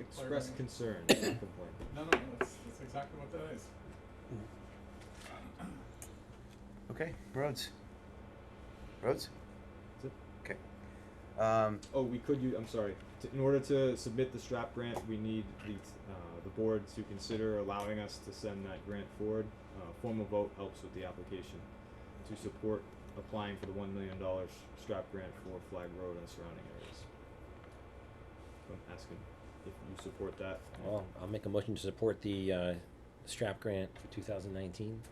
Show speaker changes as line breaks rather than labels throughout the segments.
express
Clear.
concern, not complaint.
No, no, that's, that's exactly what that is.
Okay, roads. Roads?
That's
Okay. Um,
Oh, we could use, I'm sorry, to, in order to submit the strap grant, we need the, uh, the board to consider allowing us to send that grant forward. Uh, formal vote helps with the application to support applying for the one million dollars strap grant for Flag Road and surrounding areas. So I'm asking if you support that.
Oh,
Well, I'll make a motion to support the, uh, strap grant for two thousand nineteen.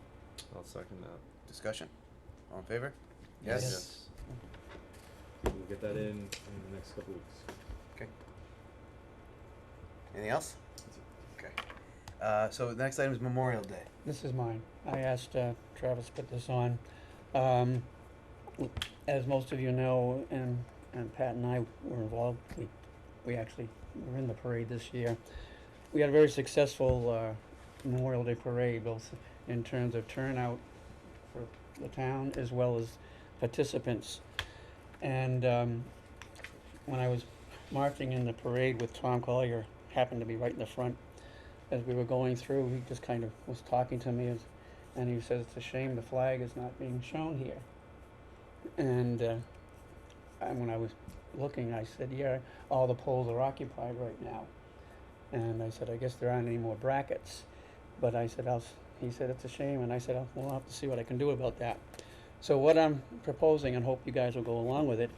I'll second that.
discussion. All in favor?
Yes.
We'll get that in in the next couple weeks.
Okay. Anything else?
That's it.
Okay. Uh, so the next item is Memorial Day.
This is mine. I asked uh, Travis to put this on. Um, as most of you know, and, and Pat and I were involved, we, we actually were in the parade this year. We had a very successful uh, Memorial Day parade, both in terms of turnout for the town as well as participants. And um, when I was marching in the parade with Tom Collier, happened to be right in the front, as we were going through, he just kind of was talking to me, as, and he says, "It's a shame the flag is not being shown here." And, uh, and when I was looking, I said, "Yeah, all the poles are occupied right now," and I said, "I guess there aren't any more brackets," but I said, "I'll." s- He said, "It's a shame," and I said, "I'll, we'll have to see what I can do about that." So what I'm proposing, and hope you guys will go along with it,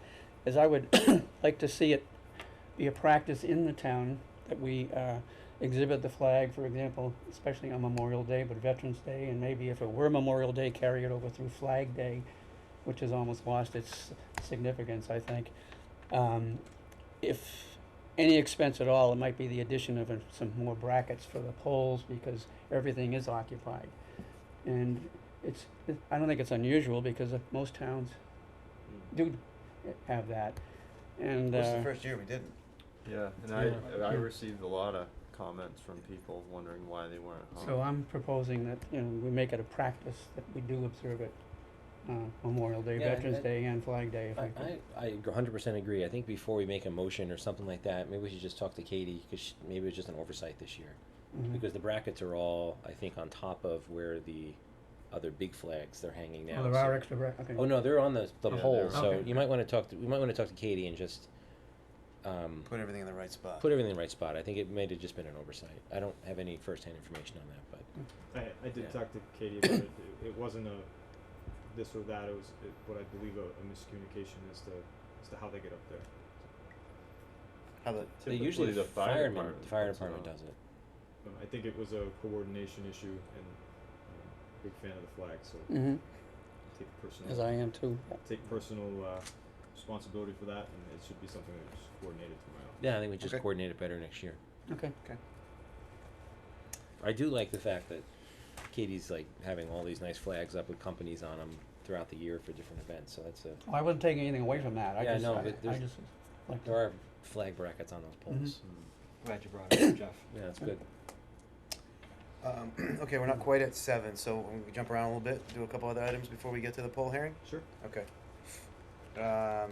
is I would like to see it be a practice in the town that we. Uh, exhibit the flag, for example, especially on Memorial Day, but Veterans Day, and maybe if it were Memorial Day, carry it over through Flag Day, which has almost lost its significance, I think. Um, if any expense at all, it might be the addition of a- some more brackets for the poles, because everything is occupied. And it's, it- I don't think it's unusual, because uh, most towns do have that, and,
This is
uh,
the first year we didn't.
Yeah, and I,
Yeah.
I received a lot of comments from people wondering why they weren't home.
Oh.
So I'm proposing that, you know, we make it a practice that we do observe it, uh, Memorial Day,
Yeah,
Veterans
that-
Day, and Flag Day, if
I,
I could.
I, I hundred percent agree. I think before we make a motion or something like that, maybe we should just talk to Katie, cause she, maybe it's just an oversight this year.
Mhm.
Because the brackets are all, I think, on top of where the other big flags they're hanging now.
Oh, there
so-
are extra, bra- okay.
Oh, no, they're on the, the
Yeah,
pole,
they're-
so
Okay.
you might wanna talk to, we might wanna talk to Katie and just, um,
Put everything in the right spot.
put everything in the right spot. I think it might have just been an oversight. I don't have any firsthand information on that, but.
I, I did
Yeah.
talk to Katie about it. it. It wasn't a this or that. It was it, what I believe a, a miscommunication as to as to how they get up there.
How the,
They
Typically
usually
the fire
firemen-
department
The fire
puts it
department
on.
does it.
Um, I think it was a coordination issue, and um, big fan of the flag, so
Mhm,
take
as
personal
I am too.
take personal uh, responsibility for that, and it should be something that's coordinated tomorrow.
Yeah, I think we just
Okay.
coordinate it better next year.
Okay,
I do like the fact that Katie's like having all these nice flags up with companies on them throughout the year for different events. So that's a
Well, I wasn't taking anything away from that, I
Yeah,
just,
no,
I,
but
I
there's-
just, like,
there are flag brackets on those poles.
Glad you brought it up, Jeff.
Yeah, that's good.
um, okay, we're not quite at seven, so we jump around a little bit, do a couple other items before we get to the poll hearing.
Sure.
Okay. Um,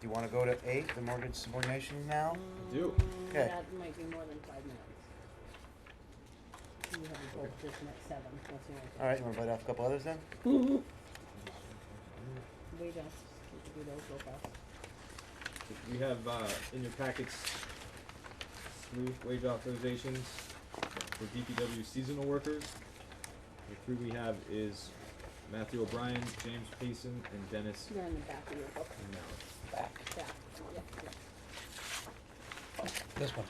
do you want to go to eight, the mortgage subordination now?
do.
Mm,
Okay.
That might be more than five minutes. You have a vote this night, seven, that's the only thing.
All right, you want to bite off a couple others then?
We don't, we can do those real fast.
We have uh, in your packets new wage authorizations for DPW seasonal workers. The three we have is Matthew O'Brien, James Payson, and Dennis
They're in the back of your book,
Mallett.
back,
back, yeah, yeah.
this one.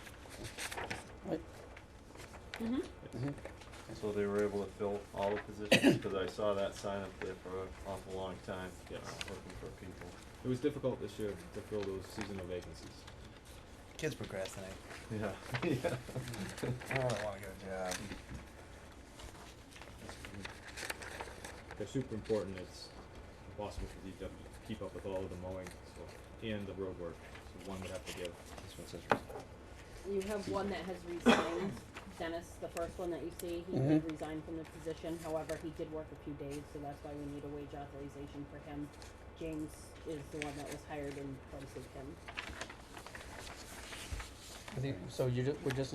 Mm-hmm.
So they were able to fill all the positions, cause I saw that sign up there for an awful long time, uh,
Yes.
looking for people.
It was difficult this year to fill those seasonal vacancies.
Kids procrastinate.
Yeah, yeah.
I don't want to get a job.
They're super important. It's impossible for DPW to keep up with all of the mowing so, and the road work. So one would have to give.
This one says
You have one that has resigned, Dennis, the first one that you see, he had
Mm-hmm.
Mhm.
resigned from the position, however, he did work a few days, so that's why we need a wage authorization for him. James is the one that was hired in place of him.
I think- So you ju- we're just